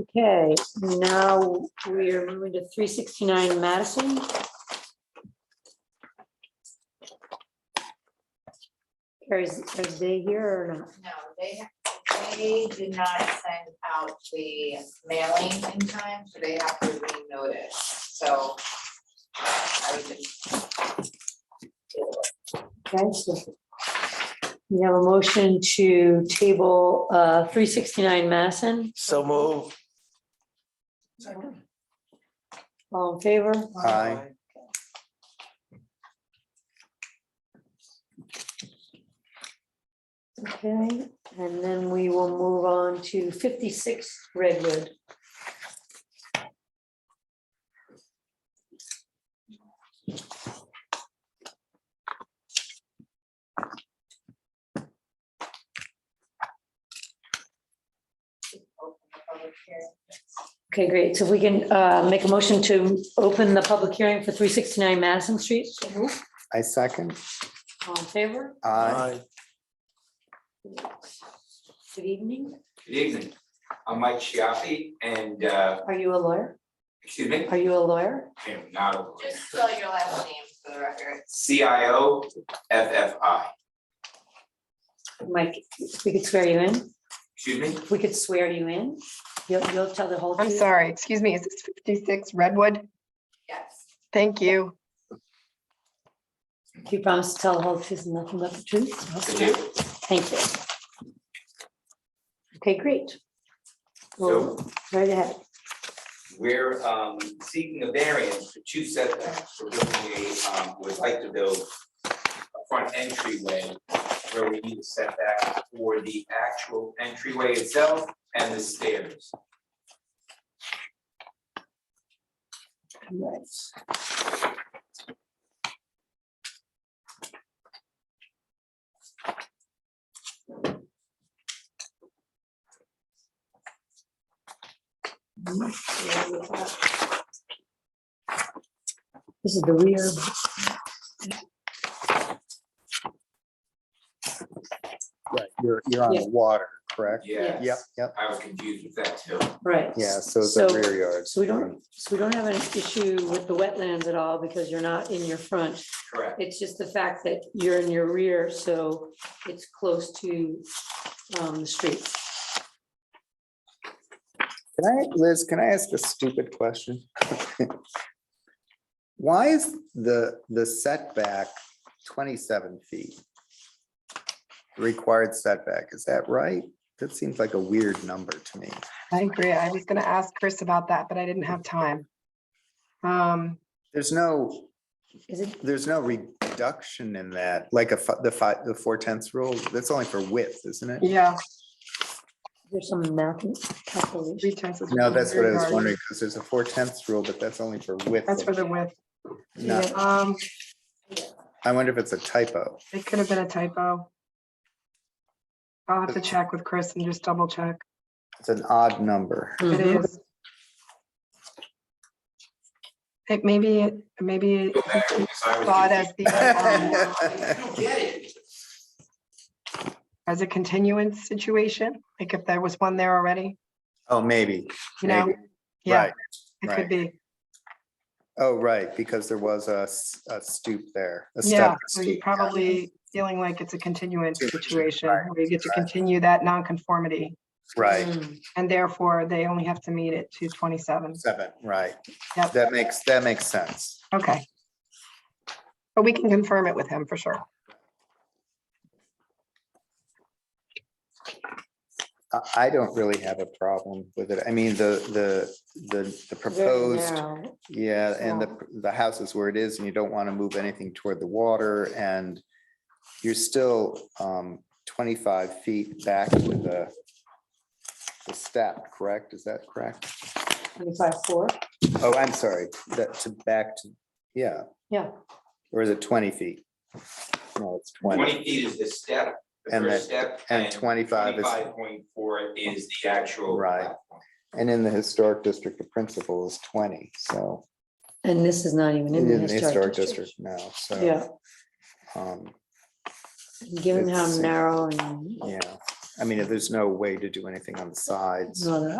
Okay, now we are moving to three sixty-nine Madison. Carrie's, are they here or not? No, they, they did not send out the mailing in time, so they have to renotice, so. I would just. Okay, so we have a motion to table uh three sixty-nine Madison. So move. All in favor? Aye. Okay, and then we will move on to fifty-six Redwood. open the public hearing. Okay, great. So if we can uh make a motion to open the public hearing for three sixty-nine Madison Street. I second. All in favor? Aye. Good evening. Good evening. I'm Mike Chiappi and, uh, Are you a lawyer? excuse me, Are you a lawyer? I'm not a lawyer. Just spell your last name for the record. CIO FFI. Mike, we could swear you in. Excuse me? If we could swear you in, you'll you'll tell the whole. I'm truth? sorry, excuse me, is this 56 Redwood? Yes, Thank you. You promise to tell the whole truth and nothing but the Could truth? you? Thank you. Okay, great. Well, So right ahead. we're, um, seeking a variance for two setbacks. We're building a, um, would like to build a front entryway where we need a setback for the actual entryway itself and the stairs. Right. This is the rear. Right, you're, you're on Yeah. the water, correct? Yeah, Yep, yep, I was confused with that too. Right. yeah, so it's a rear yard. So we don't, so we don't have an issue with the wetlands at all because you're not in your front. Correct. It's just the fact that you're in your rear, so it's close to um, the street. Can I, Liz, can I ask a stupid question? Why is the, the setback twenty-seven feet? Required setback, is that right? That seems like a weird number to me. I agree. I was going to ask Chris about that, but I didn't have time. Um, There's no, Is it, there's no reduction in that, like a, fi- the five, the four tenths rule, that's only for width, isn't it? Yeah, there's some math calculation? three tenths. is No, within that's what I rear was yard. wondering, because there's a four tenths rule, but that's only for width. That's for the width. No, Um, I wonder if it's a typo. it could have been a typo. I'll have to check with Chris and just double check. It's an odd number. It Mhm. is. It maybe, it- maybe it Go back and decide what you thought think. as I the, um, don't get it. as a continuance situation, like if there was one there already, Oh, maybe. you know? maybe. Yeah, Right. it right. could be. Oh, right, because there was a, s- a stoop there. a step Yeah, and so you're stoop, yeah. probably feeling like it's a continuance Situation, situation right, where you get to right. continue that nonconformity Right, Mm, and therefore they only have to meet it to twenty-seven. seven, right. Yep. That makes, that makes sense. Okay. But we can confirm it with him for sure. I, I don't really have a problem with it. I mean, the, the, the, the very proposed, narrow. yeah, and the, the house is where it is and you don't want to move anything toward the water and you're still, um, twenty-five feet back with the, the step, correct? Is that correct? Twenty-five, four, Oh, I'm sorry, that to back to, yeah, yeah. or is it twenty feet? No, it's twenty, Twenty feet is the step, the And first the- step. and twenty-five is, Twenty-five point four is the actual. Right. platform. and in the historic district, the principal is twenty, so. And this is not even in the historic district. district now, so. Yeah, um, given how It's- narrow and Yeah, I mean, if there's no way to do anything on the sides. all that.